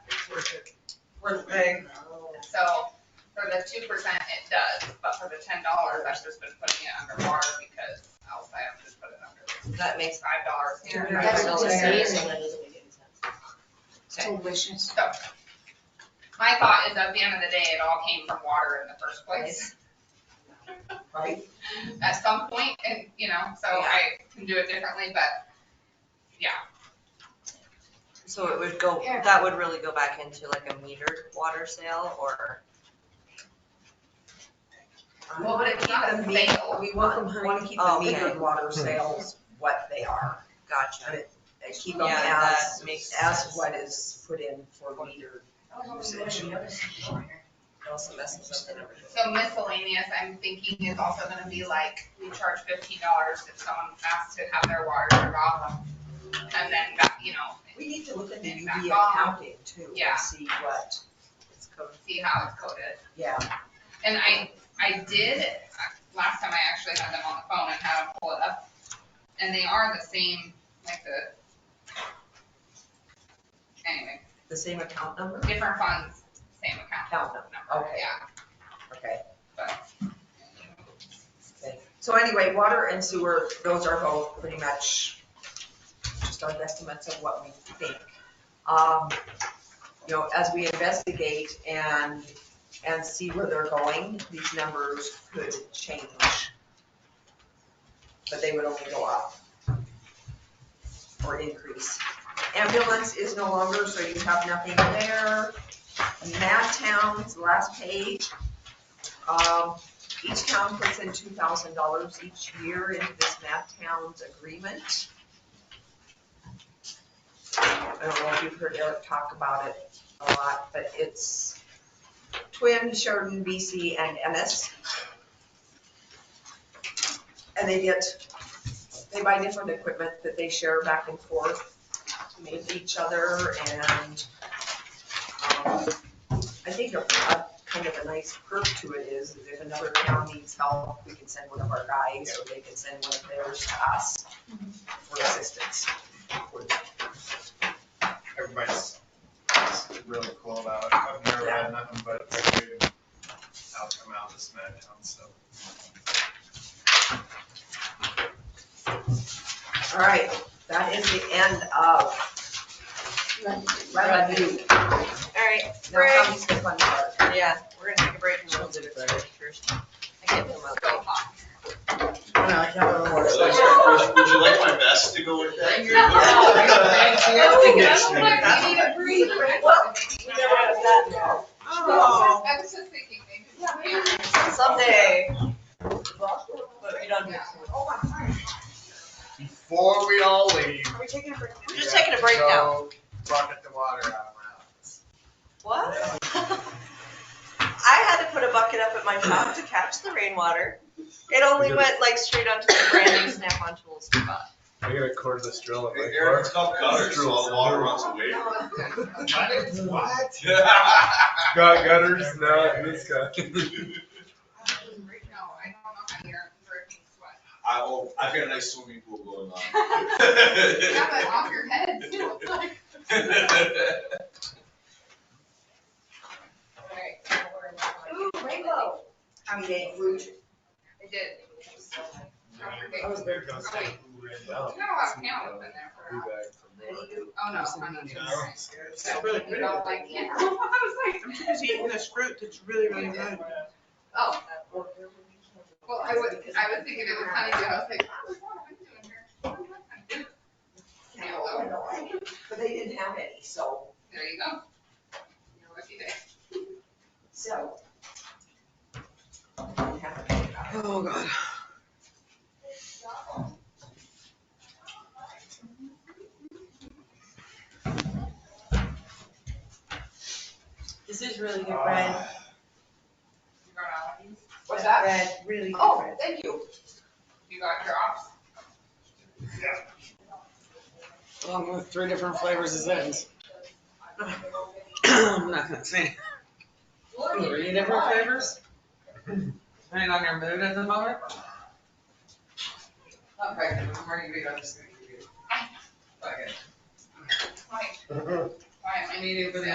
worth paying. So for the two percent, it does, but for the ten dollars, I've just been putting it under water because else I have to put it under That makes. five dollars here. and That's $5 what So just there. saying. amazing, that doesn't make any sense. Delicious. So, my thought is at the end of the day, it all came from water in the first place. Right. At some point, and, you know, so I can do it differently, but, yeah, So it would go, that would really go back into like a metered water sale or? Well, but it's not a We sale. want them, want to keep the Oh, metered okay. water sales what they are, Gotcha. and keep them Yeah, as, that makes sense. as what is put in for metered usage. It also messes up the number. So miscellaneous, I'm thinking is also gonna be like, we charge fifteen dollars if someone asks to have their water turned off. And then, that, you know, We need to look at the Take UV back off. accounting too, Yeah. and see what it's code, see how it's coded. yeah. And I, I did, last time I actually had them on the phone and had them pull it up, and they are the same, like the, anyway, The same account number? different funds, same account Count them, number, Okay. yeah. okay. But- So anyway, water and sewer, those are both pretty much just our estimates of what we think. Um, You know, as we investigate and, and see where they're going, these numbers could change. But they would only go up or increase. Ambulance is no longer, so you have nothing there. Mad towns, last page. Um, each town puts in two thousand dollars each year into this map towns agreement. I don't know if you've heard Eric talk about it a lot, but it's Twin, Sheridan, BC, and Ennis. And they get, they buy different equipment that they share back and forth with each other and um, I think a a kind of a nice perk to it is, is if another town needs help, we can send one of our guys, or they can send one of theirs to us for assistance. everybody's just really cool about it. I've never Yeah. had nothing but a good outcome out of this SmackDown, so. All right, that is the end of revenue. All right, Now comes the fun part. yeah, we're gonna take a break and we'll do it first. I can't do my. So, um, Would you like- Would you like my vest to go with that? Oh, get that's you. what we need to breathe. Well, I was just thinking, maybe. Someday. But we don't do it. Before we all leave. Are we taking a break We're just taking a break now. Bucket the water out of my house. What? I had to put a bucket up at my shop to catch the rainwater. It only went like straight onto the brand new snap-on tools. I gotta record this drill at like Aaron, it's called gutters, so all the water runs away. What? Yeah. Got gutters? No, this guy. No, I don't know how you're breaking sweat. I, oh, I've got a nice swimming pool going Yeah, but on. off your head too. Like, Ooh, rainbow. I mean, a root. I did. I forget. was there. Be Oh, wait. You got a lot of panels in there for. back Oh, no, I need to. That's really You pretty. don't like, yeah, I was like, I'm too busy eating this fruit that's really, really good. oh, well, I was, I was thinking it was honeydew, I was like, oh, what am I doing here? But they didn't have any, so, There you go. You're lucky there. so. we have to think about it. Oh, God. This is really You got all of these? What's that? Really Oh, thank you. You got your ops? Along with three different flavors of Zins. I'm not gonna say. Three different flavors? Depending on your mood at the moment. Okay, I'm ready to go, I'm just gonna give you. Okay. Why, why am I I need it for the